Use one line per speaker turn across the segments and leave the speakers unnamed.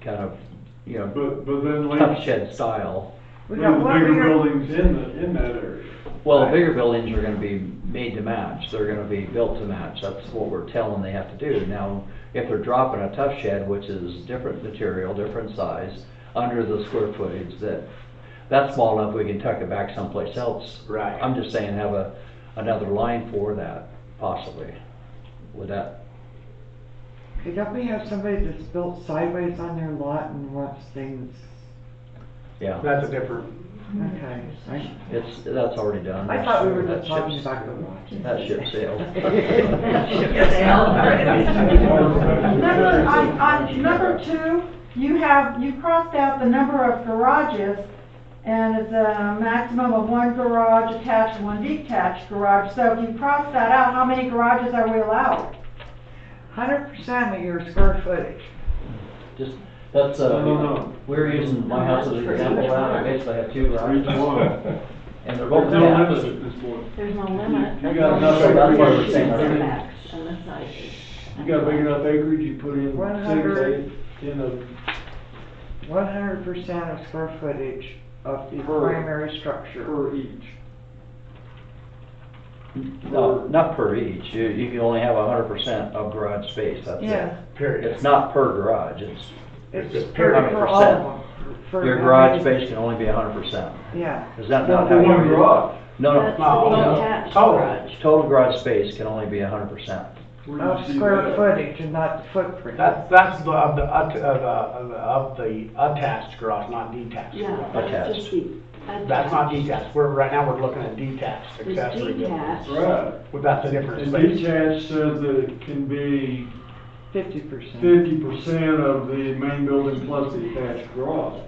kind of, you know,
But, but then
tough
like,
shed style.
We got
there's
one
bigger
bigger,
buildings in the, in that area.
Well, the bigger buildings are gonna be made to match, they're gonna be built to match, that's what we're telling they have to do. Now, if they're dropping a tough shed, which is different material, different size, under the square footage, that, that's small enough, we can tuck it back someplace else.
Right.
I'm just saying, have a, another line for that, possibly, would that,
could definitely have somebody that's built sideways on their lot and wants things,
yeah,
That's a different,
okay, I,
it's, that's already done.
I thought we were
That
just talking
ship's-
about the lot.
That ship sailed.
Number, on, on number two, you have, you crossed out the number of garages, and it's a maximum of one garage attached, one detached garage. So if you cross that out, how many garages are we allowed?
Hundred percent of your square footage.
Just, that's,
No, no,
uh,
no.
we're using my house as an example, I basically have two
Each
garages,
one.
and they're both
There's no
attached.
limit at this point.
There's no limit.
You got
enough
That's
acreage,
why
you're saying that.
setbacks on the side.
You got big enough acreage, you put in
One
six,
hundred.
eight, ten of them.
One hundred percent of square footage of the
Per-
primary structure.
per each.
No, not per each, you, you can only have a hundred percent of garage space, that's it.
Yeah,
period.
It's not per garage, it's,
it's
It's
for, for all of them. For
your
every-
garage space can only be a hundred percent.
Yeah,
Is that not
Not for
how you?
one garage.
No,
That's
no,
No, Oh,
the
no.
attached
Total.
garage.
total garage space can only be a hundred percent.
Where'd you
of
see
square
that?
footage and not the footprint.
That's, that's the, of the, ut- of the, of the- of the attached garage, not detached
Yeah,
garage.
that's just the.
That's not detached, we're, right now, we're looking at detached
It's
accessory buildings.
detached.
Right.
Well, that's a different
And
space.
detached says that it can be
Fifty percent.
fifty percent of the main building plus the attached garage.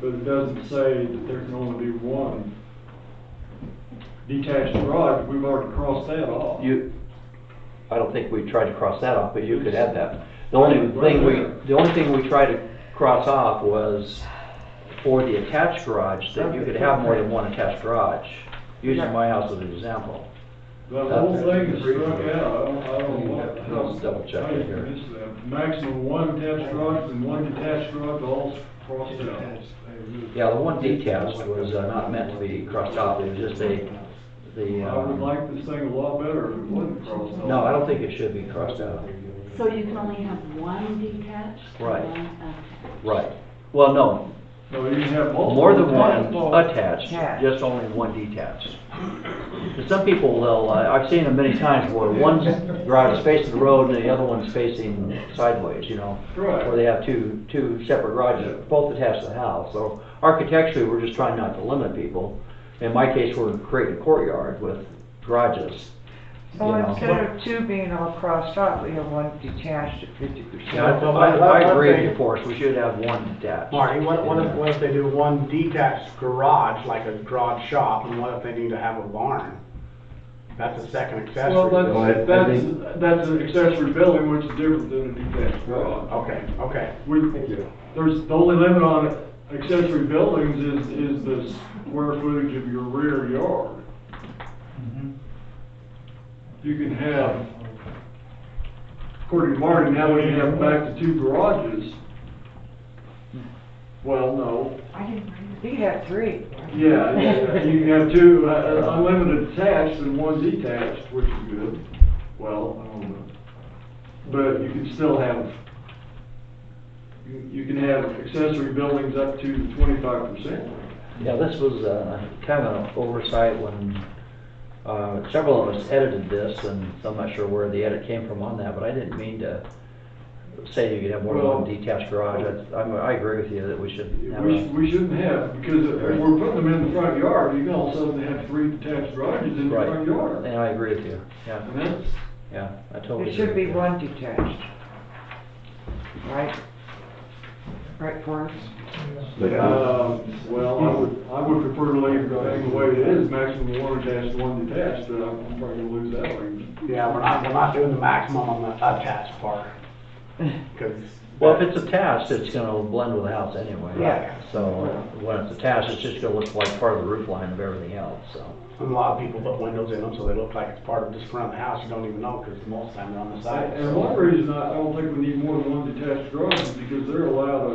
But it doesn't say that there can only be one detached garage, we've already crossed that off.
You, I don't think we tried to cross that off, but you could add that. The only thing we, the only thing we tried to cross off was for the attached garage, that you could have more than one attached garage, using my house as an example.
The whole thing is struck out, I don't, I don't know what.
Let's double check it here.
I missed that. Maximum one attached garage and one detached garage, all crossed out.
Yeah, the one detached was uh, not meant to be crossed off, it was just a, the,
I would
um,
like this thing a lot better if it wasn't crossed out.
no, I don't think it should be crossed out.
So you can only have one detached? and
Right.
one attached.
Right. Well, no,
No, you can have multiple.
more than one
Multiple
attached,
attached.
just only one detached. 'Cause some people, they'll, uh, I've seen them many times where one's garage is facing the road and the other one's facing sideways, you know?
Right.
Where they have two, two separate garages, both attached to the house. So architecturally, we're just trying not to limit people. In my case, we're creating a courtyard with garages.
So
you know.
instead of two being all crossed off, we have one detached at fifty percent.
Yeah, I, I- I agree with you, Forrest, we should have one detached.
Marty, what, what
in
if,
there.
what if they do one detached garage, like a garage shop, and what if they need to have a barn? That's a second accessory
Well,
building.
that's, that's, that's an accessory building, which is different than a detached garage.
Okay, okay.
We, there's, the only limit on accessory buildings is, is the square footage of your rear yard. You can have, according to Marty, now we can have back to two garages. Well, no,
You have three.
yeah, yeah, you can have two uh, unlimited attached and one detached, which is good. Well, I don't know. But you can still have, you you can have accessory buildings up to twenty-five percent.
Yeah, this was, uh, kind of an oversight when, uh, several of us edited this, and so I'm not sure where the edit came from on that, but I didn't mean to say you could have more than one
Well-
detached garage, I, I'm- I agree with you that we should have
We, sh-
a,
we shouldn't have, because if we're putting them in the front yard, you can all of a sudden have three detached garages in the
Right.
front yard.
and I agree with you, yeah,
And that's,
yeah, I totally
It
agree
should
with
be
you.
one detached. Right? Right, Forrest?
uh, well, I would, I would prefer to leave the thing the way it is, maximum one attached, one detached, but I'm I'm probably gonna lose that one.
Yeah, we're not, we're not doing the maximum on the attached part. Cause.
Well, if it's attached, it's gonna blend with the house anyway.
Yeah.
So, when it's attached, it's just gonna look like part of the roof line of everything else, so.
And a lot of people put windows in them, so they look like it's part of just front of the house, you don't even know, because most of the time they're on the side.
And one reason I I don't think we need more than one detached garage is because they're allowed a